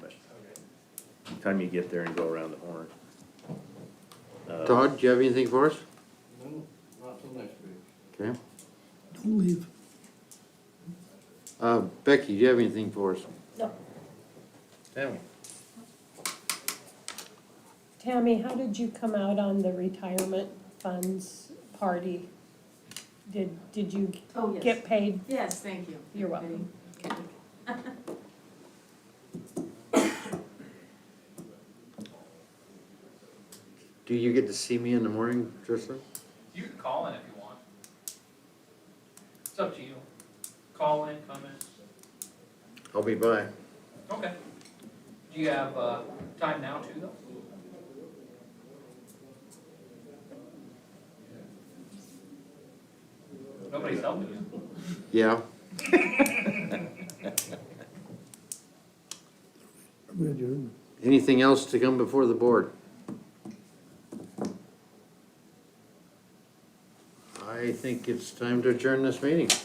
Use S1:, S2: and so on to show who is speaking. S1: time you get there and go around the horn. Uh,
S2: Todd, do you have anything for us?
S3: No, not till next week.
S2: Okay.
S4: Don't leave.
S2: Uh, Becky, do you have anything for us?
S5: No.
S2: Tammy?
S5: Tammy, how did you come out on the retirement funds party? Did, did you
S6: Oh, yes.
S5: get paid?
S6: Yes, thank you.
S5: You're welcome.
S2: Do you get to see me in the morning, Tristan?
S7: You can call in if you want. It's up to you. Call in, come in.
S2: I'll be by.
S7: Okay. Do you have, uh, time now too though? Nobody's helping you.
S2: Yeah,
S4: Are we adjourned?
S2: anything else to come before the board? I think it's time to adjourn this meeting.